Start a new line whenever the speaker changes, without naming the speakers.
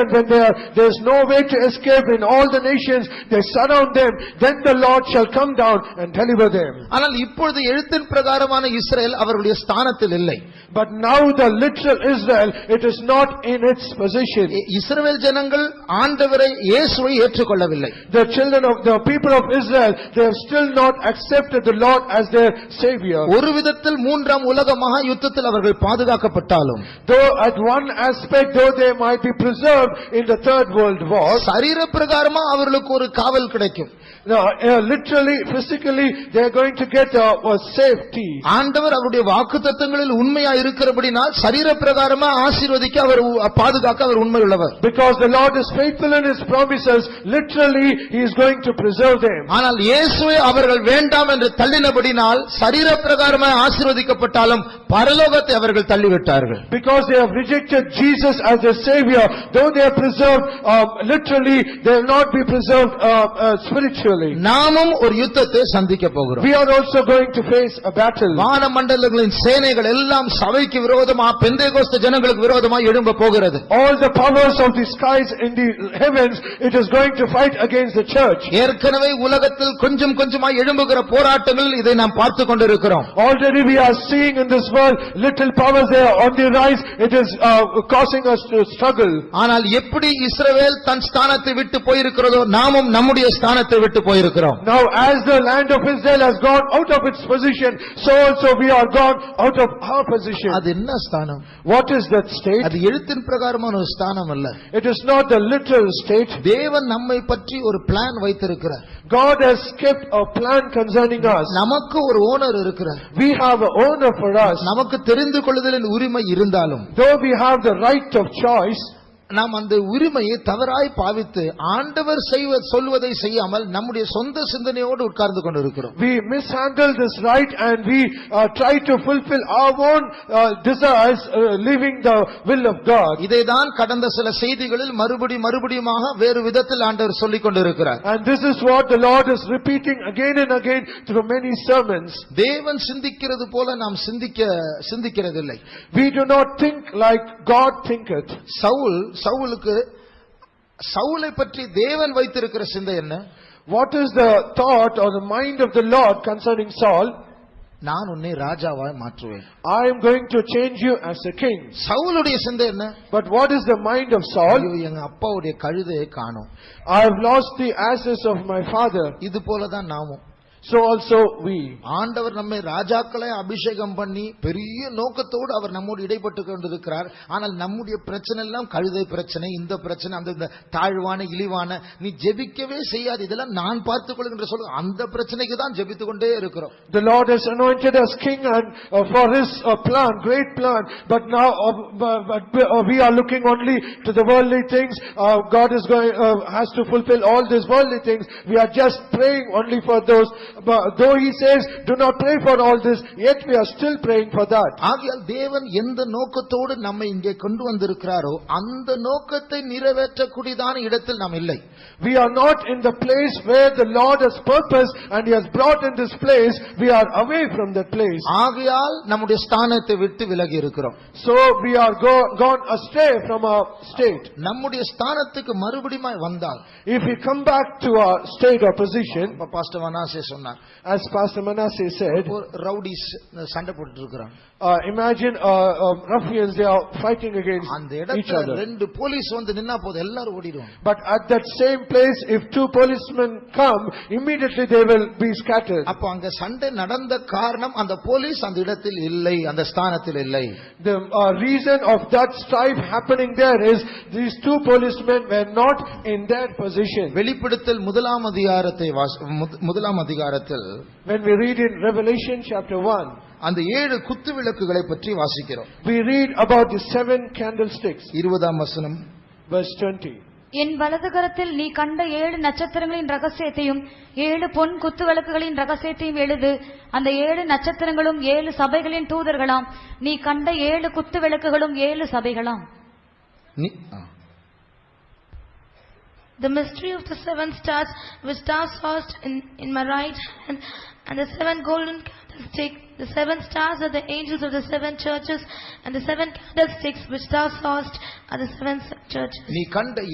And when there, there is no way to escape in all the nations, they surround them, then the Lord shall come down and deliver them.
ஆனால் இப்பொழுது எழுத்தின் பிரகாரமான Israel அவர்களுடைய ஸ்தானத்தில் இல்லை
But now the literal Israel, it is not in its position.
இ- இஸ்ரவேல் ஜனங்கள் ஆண்டவரை இயேசுவை ஏற்றுக்கொள்ளவில்லை
The children of the people of Israel, they have still not accepted the Lord as their savior.
ஒரு விதத்தில் மூன்றாம் உலக மகா யுத்தத்தில் அவர்கள் பாதுகாக்கப்பட்டாலும்
Though at one aspect, though they might be preserved in the third world war,
சரீர பிரகாரமா அவர்களுக்கு ஒரு காவல் கிடைக்கும்
now, uh, literally, physically, they are going to get uh, a safety.
ஆண்டவர் அவருடைய வாக்குத்தத்தங்களில் உண்மையா இருக்கிறபடினால் சரீர பிரகாரமா ஆசீர்வதிக்க அவர் உ- பாதுகாக்க அவர் உண்மை உள்ளவர்
Because the Lord is faithful in his promises, literally, he is going to preserve them.
ஆனால் இயேசுவை அவர்கள் வேண்டாம் என்று தள்ளினபடினால் சரீர பிரகாரமா ஆசீர்வதிக்கப்பட்டாலும் பரலோகத்தை அவர்கள் தள்ளிவிட்டார்கள்
Because they have rejected Jesus as their savior, though they are preserved, um, literally, they will not be preserved, uh, uh, spiritually.
நாமும் ஒரு யுத்தத்தை சந்திக்க போகிறோம்
We are also going to face a battle.
வான மண்டலங்களின் சேனைகள் எல்லாம் சபைக்கு விரோதமா பெந்தேகோஸ்து ஜனங்களுக்கு விரோதமா எழும்ப போகிறது
All the powers of the skies in the heavens, it is going to fight against the church.
ஏற்கனவே உலகத்தில் கொஞ்சம் கொஞ்சமா எழும்புகிற போராட்டங்களில் இதை நாம் பார்த்து கொண்டிருக்கிறோம்
Already we are seeing in this world, little powers they are on the rise, it is, uh, causing us to struggle.
ஆனால் எப்படி இஸ்ரவேல் தன் ஸ்தானத்தை விட்டு போயிருக்கிறதோ நாமும் நம்முடைய ஸ்தானத்தை விட்டு போயிருக்கிறோம்
Now as the land of Israel has gone out of its position, so also we are gone out of our position.
அது என்ன ஸ்தானம்
What is that state?
அது எழுத்தின் பிரகாரமான ஒரு ஸ்தானம் அல்ல
It is not the literal state.
தேவன் நம்மை பற்றி ஒரு பிளான் வைத்திருக்கிறார்
God has kept a plan concerning us.
நமக்கு ஒரு ஓனர் இருக்கிறார்
We have a owner for us.
நமக்கு தெரிந்து கொள்ளுதலின் உரிமை இருந்தாலும்
Though we have the right of choice,
நாம் அந்த உரிமையை தவறாய் பாவித்து ஆண்டவர் செய்வ சொல்வதை செய்யாமல் நம்முடைய சொந்த சிந்தனையோடு உட்கார்ந்து கொண்டிருக்கிறோம்
we mishandle this right and we uh, try to fulfill our own uh, desires, uh, leaving the will of God.
இதைதான் கடந்த சில செய்திகளில் மறுபடி மறுபடியுமாக வேறு விதத்தில் ஆண்டவர் சொல்லிக் கொண்டிருக்கிறார்
And this is what the Lord is repeating again and again through many sermons.
தேவன் சிந்திக்கிறது போல நாம் சிந்திக்க சிந்திக்கிறதில்லை
We do not think like God thinketh.
Saul சவுலுக்கு சவுலை பற்றி தேவன் வைத்திருக்கிற சிந்தை என்ன
What is the thought or the mind of the Lord concerning Saul?
நான் உன்னை ராஜாவாய் மாற்றுவேன்
I am going to change you as a king.
சவுலுடைய சிந்தை என்ன
But what is the mind of
ஐயோ
Saul?
எங்க அப்பாவுடைய கழுதையை காணோம்
I have lost the asses of my father,
இது போலதான் நாமும்
so also we.
ஆண்டவர் நம்மை ராஜாக்களை அபிஷேகம் பண்ணி பெரிய நோக்கத்தோடு அவர் நம்மோடு இடைப்பட்டு கொண்டிருக்கிறார் ஆனால் நம்முடைய பிரச்சனை எல்லாம் கழுதை பிரச்சனை இந்த பிரச்சனை அந்த இந்த தாழ்வான இழிவான நீ ஜெபிக்கவே செய்யாது இதெல்லாம் நான் பார்த்துக் கொள்கின்ற சொல்ல அந்த பிரச்சனைக்கு தான் ஜெபித்துக் கொண்டே இருக்கிறோம்
The Lord has anointed us king and uh, for his uh, plan, great plan, but now uh, bu- but we- uh, we are looking only to the worldly things. Uh, God is going, uh, has to fulfill all these worldly things. We are just praying only for those. But Though he says, "Do not pray for all this," yet we are still praying for that.
ஆகையால் தேவன் எந்த நோக்கத்தோடு நம்மை இங்கே கொண்டு வந்திருக்கிறாரோ அந்த நோக்கத்தை நிறைவேற்றக்கூடியதான இடத்தில் நாம் இல்லை
We are not in the place where the Lord has purpose and He has brought in this place, we are away from that place.
ஆகையால் நம்முடைய ஸ்தானத்தை விட்டு விலகி இருக்கிறோம்
So we are go- gone astray from our state.
நம்முடைய ஸ்தானத்துக்கு மறுபடியும் வந்தால்
If we come back to our state or position,
இப்ப பாஸ்டர் வனாசே சொன்னார்
as Pastor Manasseh said,
ஒரு ரவுடிஸ் சண்டை போட்டுட்டு இருக்கிறான்
uh, imagine uh, um, ruffians, they are fighting against
அந்த
each
இடத்துல
other.
ரெண்டு போலீஸ் வந்து நின்னா போதும் எல்லாரும் ஓடிடுவாங்க
But at that same place, if two policemen come, immediately they will be scattered.
அப்போ அங்க சண்டை நடந்த காரணம் அந்த போலீஸ் அந்த இடத்தில் இல்லை அந்த ஸ்தானத்தில் இல்லை
The uh, reason of that strife happening there is, these two policemen were not in their position.
வெளிப்படுத்தல் முதலாம் அதிகாரத்தை வாச- முத- முதலாம் அதிகாரத்தில்
When we read in Revelation chapter 1,
அந்த ஏழு குத்து விளக்குகளை பற்றி வாசிக்கிறோம்
we read about the seven candlesticks,
இருபதாம் வசனம்
verse 20.
என் வலது கரத்தில் நீ கண்ட ஏழு நட்சத்திரங்களின் ரகசியத்தையும் ஏழு பொன் குத்து விளக்குகளின் ரகசியத்தையும் எழுது அந்த ஏழு நட்சத்திரங்களும் ஏழு சபைகளின் தூதர்களாம் நீ கண்ட ஏழு குத்து விளக்குகளும் ஏழு சபைகளாம்
நீ- ஆ.
The mystery of the seven stars which thou sawest in, in my right hand, and the seven golden candlesticks candlestick, the seven stars are the angels of the seven churches, and the seven candlesticks which thou sawest are the seven churches.
நீ கண்ட